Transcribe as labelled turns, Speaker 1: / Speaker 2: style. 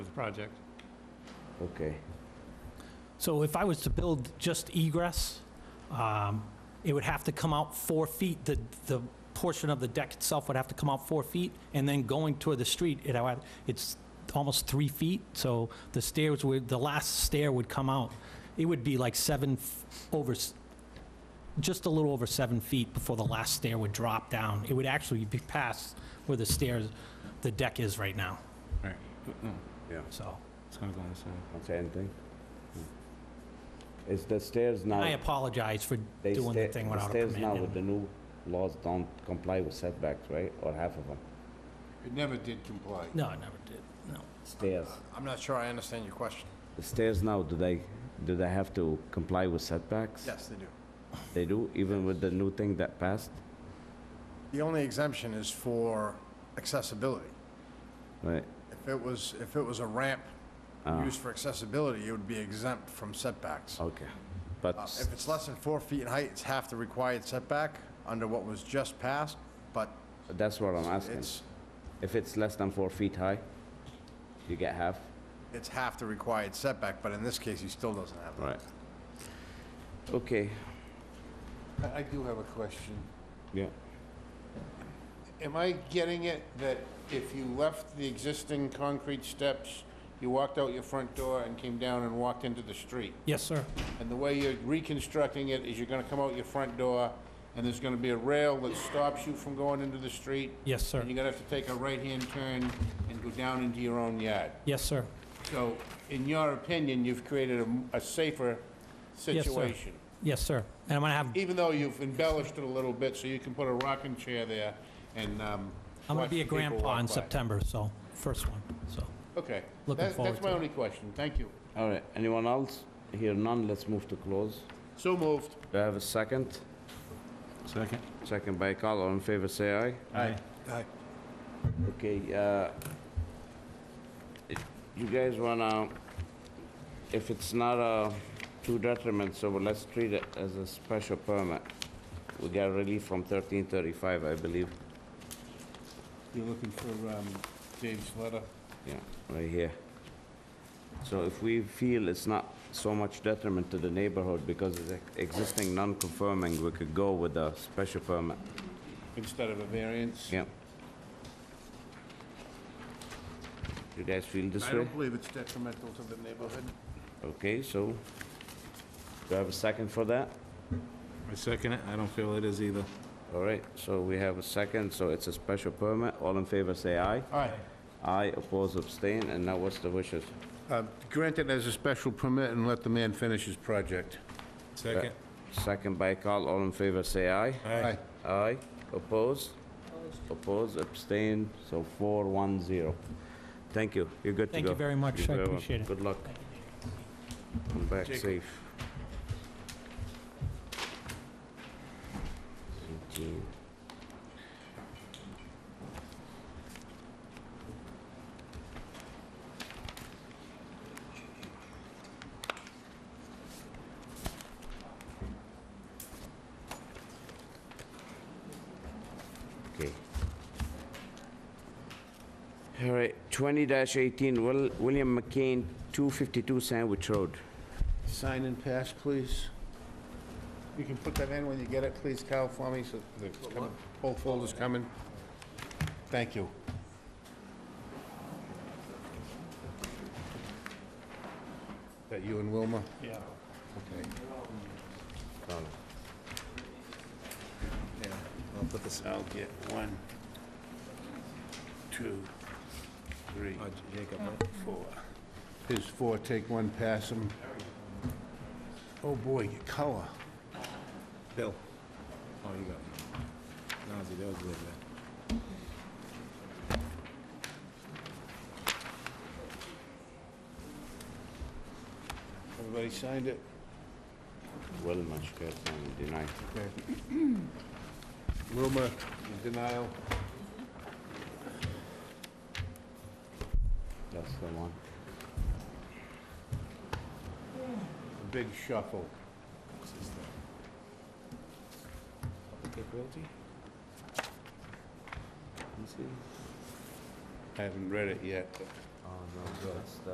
Speaker 1: project.
Speaker 2: Okay.
Speaker 3: So if I was to build just egress, um, it would have to come out four feet, the, the portion of the deck itself would have to come out four feet, and then going toward the street, it, would- it's almost three feet, so the stairs would, the last stair would come out. It would be like seven, f- over, s- just a little over seven feet before the last stair would drop down. It would actually be past where the stairs, the deck is right now,
Speaker 1: Right. No,
Speaker 3: so.
Speaker 1: it's gonna go on the side.
Speaker 2: That's anything. Is the stairs now...
Speaker 3: I apologize for
Speaker 2: Uh, they
Speaker 3: doing the
Speaker 2: sta-
Speaker 3: thing without a
Speaker 2: The
Speaker 3: permit.
Speaker 2: stairs now
Speaker 3: and-
Speaker 2: with the new laws don't comply with setbacks, right? Or half of them?
Speaker 4: It never did comply.
Speaker 3: No, I never did, no.
Speaker 2: Stairs.
Speaker 4: I'm not sure I understand your question.
Speaker 2: The stairs now, do they, do they have to comply with setbacks?
Speaker 4: Yes, they do.
Speaker 2: They do, even with the new thing that passed?
Speaker 4: The only exemption is for accessibility.
Speaker 2: Right,
Speaker 4: If it was, if it was a ramp
Speaker 2: Ah. Oh.
Speaker 4: used for accessibility, it would be exempt from setbacks.
Speaker 2: okay.
Speaker 4: Uh,
Speaker 2: But
Speaker 4: If it's less than four feet in height, it's half the required setback under what was just passed, but
Speaker 2: that's what I'm asking.
Speaker 4: it's,
Speaker 2: If it's less than four feet high, you get half?
Speaker 4: it's half the required setback, but in this case, he still doesn't have that.
Speaker 2: Right. Okay,
Speaker 5: I I do have a question.
Speaker 2: yeah.
Speaker 5: Am I getting it that if you left the existing concrete steps, you walked out your front door and came down and walked into the street?
Speaker 3: Yes, sir.
Speaker 5: And the way you're reconstructing it is you're gonna come out your front door, and there's gonna be a rail that stops you from going into the street?
Speaker 3: Yes, sir.
Speaker 5: And you're gonna have to take a right-hand turn and go down into your own yard?
Speaker 3: Yes, sir.
Speaker 5: So, in your opinion, you've created a m- a safer
Speaker 3: Yes, sir.
Speaker 5: situation?
Speaker 3: Yes, sir. And I'm gonna have,
Speaker 5: even though you've embellished it a little bit, so you can put a rocking chair there and, um.
Speaker 3: I'm gonna
Speaker 5: watch
Speaker 3: be a
Speaker 5: the people
Speaker 3: grandpa
Speaker 5: walk
Speaker 3: in
Speaker 5: by.
Speaker 3: September, so, first one, so.
Speaker 5: Okay.
Speaker 3: Looking
Speaker 5: That-
Speaker 3: forward
Speaker 5: That's my
Speaker 3: to it.
Speaker 5: only question, thank you.
Speaker 2: All right, anyone else? Here none, let's move to close.
Speaker 5: So moved.
Speaker 2: Do I have a second?
Speaker 1: Second?
Speaker 2: Second by Carl, all in favor, say aye.
Speaker 1: Aye.
Speaker 4: Aye.
Speaker 2: Okay, uh, it- you guys wanna, if it's not a too detriment, so let's treat it as a special permit. We got relief from 1335, I believe,
Speaker 5: You're looking for, um, Dave's letter?
Speaker 2: yeah, right here. So if we feel it's not so much detriment to the neighborhood because it's ex- existing non-conforming, we could go with a special permit,
Speaker 5: Instead of a variance?
Speaker 2: yeah. You guys feel this
Speaker 5: I
Speaker 2: way?
Speaker 5: don't believe it's detrimental to the neighborhood.
Speaker 2: Okay, so, do I have a second for that?
Speaker 1: I second it, I don't feel it is either.
Speaker 2: All right, so we have a second, so it's a special permit. All in favor, say aye.
Speaker 5: Aye.
Speaker 2: Aye, oppose, abstain, and now what's the wishes?
Speaker 5: Uh, grant it as a special permit and let the man finish his project.
Speaker 1: Second?
Speaker 2: Second by Carl, all in favor, say aye.
Speaker 5: Aye.
Speaker 2: Aye, opposed? Oppose, abstain, so four, one, zero. Thank you, you're good to go.
Speaker 3: Thank you very much.
Speaker 2: You're
Speaker 3: I
Speaker 2: very wel-
Speaker 3: appreciate it.
Speaker 2: Good luck. Come back safe. 18. Okay. All right, 20-18, Wil- William McCain, 252 Sandwich Road.
Speaker 5: Sign and pass, please. You can put that in when you get it, please, Cal, for me, so the coming- whole folder's coming. Thank you. That you and Wilma? Yeah. Okay. Yeah, I'll put this, I'll get one, two, three, four. Here's four, take one, pass them. Oh, boy, your color.
Speaker 1: Bill? Oh, you got it. Nazi, that was good, man.
Speaker 5: Everybody signed it?
Speaker 2: Wilma, Shkirtan, denied.
Speaker 5: Okay. Wilma, in denial.
Speaker 2: That's the one.
Speaker 5: A Big shuffle. I haven't read it yet, but
Speaker 2: Oh, no, that's the...